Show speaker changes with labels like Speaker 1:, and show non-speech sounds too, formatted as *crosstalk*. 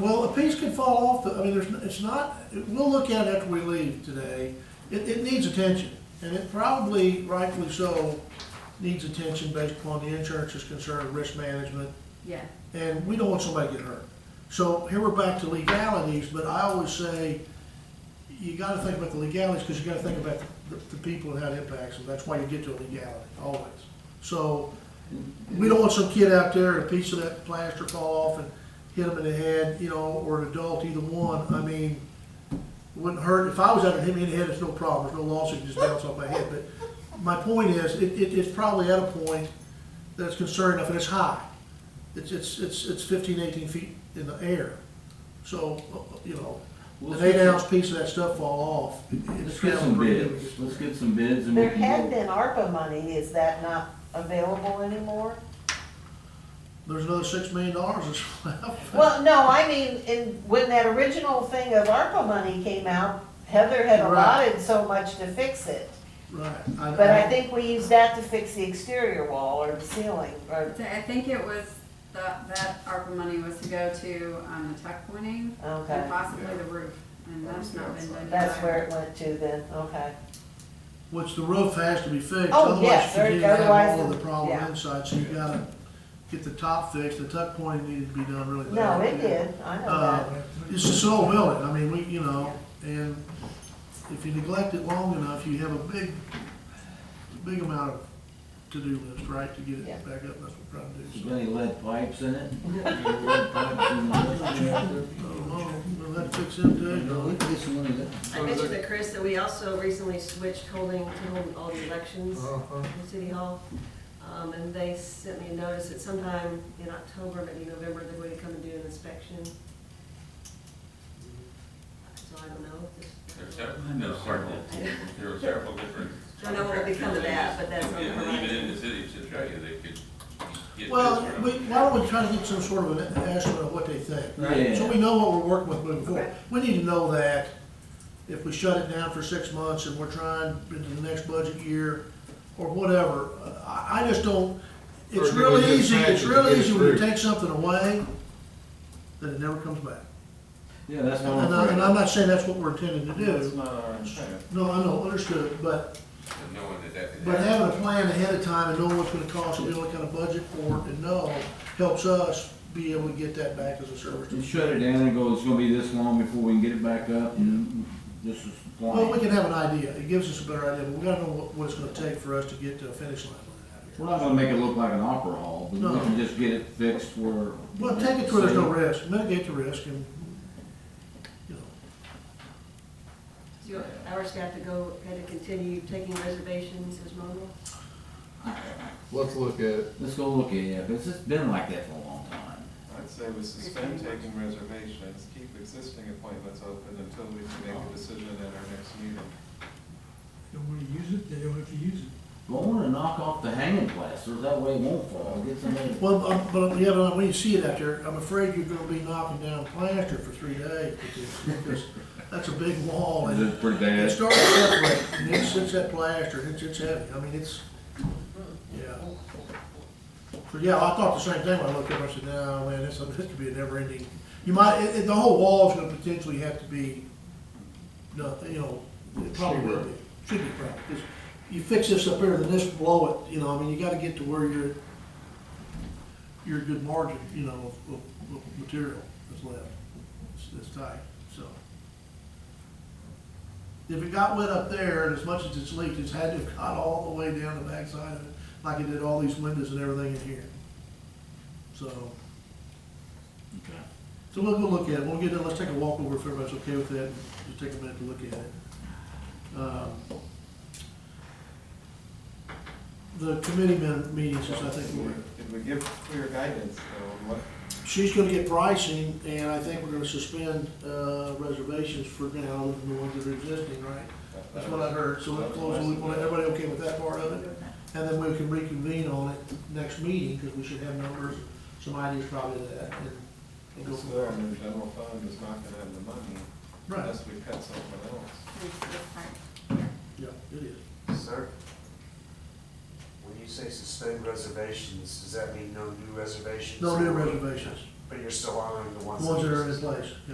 Speaker 1: Well, a piece could fall off, the- I mean, there's, n- it's not, we'll look at it after we leave today. It, it needs attention, and it probably rightfully so needs attention based upon the insurance is concerned, risk management,
Speaker 2: Yeah,
Speaker 1: and we don't want somebody to get hurt. So here we're back to legalities, but I always say, you gotta think about the legalities, because you gotta think about the, the people and how it impacts them, that's why you get to a legality, always. So, we don't want some kid out there, a piece of that plaster fall off and hit him in the head, you know, or an adult, either one, I mean, wouldn't hurt, if I was out there hitting me in the head, it's no problem, there's no loss, it just bounce off my head, but my point is, it, it, it's probably at a point that's concerned enough, and it's high, it's, it's, it's, it's fifteen, eighteen feet in the air. So, uh, you know,
Speaker 3: Let's
Speaker 1: an
Speaker 3: get
Speaker 1: eight
Speaker 3: some-
Speaker 1: ounce piece of that stuff fall off.
Speaker 3: Let's get some bids, let's get some bids and we
Speaker 4: There
Speaker 3: can
Speaker 4: had
Speaker 3: go-
Speaker 4: been ARPA money, is that not available anymore?
Speaker 1: There's another six million dollars that's *laughs* left.
Speaker 4: Well, no, I mean, in, when that original thing of ARPA money came out, Heather had
Speaker 1: Right.
Speaker 4: allotted so much to fix it.
Speaker 1: Right.
Speaker 4: But I think we used that to fix the exterior wall or the ceiling, or,
Speaker 2: So I think it was, the- that ARPA money was to go to um, the tuck pointing
Speaker 4: okay.
Speaker 2: and possibly the roof, and that's not been done.
Speaker 4: That's
Speaker 2: either.
Speaker 4: where it went to then, okay.
Speaker 1: Which the roof has to be fixed,
Speaker 4: Oh,
Speaker 1: otherwise you
Speaker 4: yes, there-
Speaker 1: continue to have all of
Speaker 4: otherwise,
Speaker 1: the problem
Speaker 4: yeah.
Speaker 1: inside, so you gotta get the top fixed, the tuck pointing needed to be done really
Speaker 4: No,
Speaker 1: bad.
Speaker 4: it did, I know
Speaker 1: Uh,
Speaker 4: that.
Speaker 1: It's a slow building, I mean, we, you know, and if you neglect it long enough, you have a big, big amount of to-do list, right, to get
Speaker 4: Yeah.
Speaker 1: it back up, that's what we're trying to do.
Speaker 3: Is
Speaker 1: so.
Speaker 3: there Any lead pipes
Speaker 1: *laughs*
Speaker 3: in it? Any lead pipes in the-
Speaker 1: I don't know, uh, we'll have to fix it uh, today,
Speaker 3: No, we can get some money there.
Speaker 5: I mentioned to Chris that we also recently switched holding, to holding all the elections in City Hall. Um, and they sent me a notice that sometime in October, maybe November, they're going to come and do an inspection. So I don't know.
Speaker 6: There's
Speaker 5: just-
Speaker 6: several, there's several, there are several different.
Speaker 5: I don't know what will become of that, but that's on the
Speaker 6: And Even in
Speaker 5: horizon.
Speaker 6: the city of Centralia, they could get.
Speaker 1: Well,
Speaker 6: this
Speaker 1: we,
Speaker 6: from-
Speaker 1: why don't we try to get some sort of an estimate of what they think?
Speaker 3: Yeah.
Speaker 1: So we know what we're working with moving forward.
Speaker 5: Okay.
Speaker 1: We need to know that if we shut it down for six months and we're trying into the next budget year or whatever, I, I just don't,
Speaker 7: Or
Speaker 1: it's
Speaker 7: do
Speaker 1: really
Speaker 7: we just
Speaker 1: easy, it's
Speaker 7: package it
Speaker 1: really
Speaker 7: and
Speaker 1: easy when you
Speaker 7: through?
Speaker 1: take something away, that it never comes back.
Speaker 3: Yeah, that's
Speaker 1: And
Speaker 3: not.
Speaker 1: I, and I'm not saying that's what we're intending to
Speaker 3: That's
Speaker 1: do.
Speaker 3: not our intent.
Speaker 1: No, I know, understood, but,
Speaker 6: and Knowing that that could
Speaker 1: but
Speaker 6: happen.
Speaker 1: having a plan ahead of time and knowing what's gonna cost and knowing what kind of budget for it and know helps us be able to get that back as a service. to
Speaker 3: You
Speaker 1: the
Speaker 3: shut it down and go, it's gonna be this long before we can get it back up and this is
Speaker 1: Well, we
Speaker 3: fine.
Speaker 1: can have an idea, it gives us a better idea, but we gotta know what, what it's gonna take for us to get to a finish line
Speaker 3: We're
Speaker 1: on it out here.
Speaker 3: not gonna make it look like an opera hall, but we
Speaker 1: No.
Speaker 3: can just get it fixed where.
Speaker 1: Well, take it to where there's no risk, mitigate the risk and, you know,
Speaker 5: Do you want our staff to go, had to continue taking reservations as normal?
Speaker 7: Let's look at it.
Speaker 3: Let's go look at it, because it's been like that for a long time.
Speaker 8: I'd say we suspend taking reservations, keep existing appointments open until we can make a decision at our next meeting.
Speaker 9: Don't want to use it, they don't have to use it.
Speaker 3: But I wanna knock off the hanging plasters, that way it won't fall, get somebody.
Speaker 1: well, um, but, yeah, but when you see it out there, I'm afraid you're gonna be knocking down plaster for three days, because, because that's a big wall and
Speaker 3: It's pretty
Speaker 1: Oh, it
Speaker 3: bad.
Speaker 1: starts separating, and it's, it's that plaster, it's, it's heavy, I mean, it's, yeah. So, yeah, I thought the same thing when I looked at it, I said, no, man, this, this could be a never ending, you might, it, it- the whole wall's gonna potentially have to be, no, you know, it probably will be, should be probably, 'cause you fix this up here, then this blow it, you know, I mean, you gotta get to where you're, you're a good margin, you know, of, of, of material that's left, it's, it's tight, so. If it got wet up there, and as much as it's leaked, it's had to have got all the way down the backside of it, like it did all these windows and everything in here. So,
Speaker 3: Okay.
Speaker 1: so we'll go look at it, when we get done, let's take a walk over if everybody's okay with that, and just take a minute to look at it. Um, The committee men meetings, is, I think, were,
Speaker 8: Did we give clear guidance though, on what
Speaker 1: she's gonna get pricing, and I think we're gonna suspend, uh, reservations for now, the ones that are existing, right? That's what I heard, so let's close the loop on it, everybody okay with that part of it? And then we can reconvene on it next meeting, because we should have numbers, some ideas probably of that, and, and go
Speaker 8: This
Speaker 1: from
Speaker 8: there
Speaker 1: there.
Speaker 8: in the general fund is not gonna have the money
Speaker 1: Right,
Speaker 8: unless we cut something else.
Speaker 2: Thanks for this part.
Speaker 1: yeah, it is.
Speaker 10: Sir, when you say suspend reservations, does that mean no new reservations?
Speaker 1: No new reservations,
Speaker 11: but you're still honoring the ones.
Speaker 10: ones that are in place, yeah.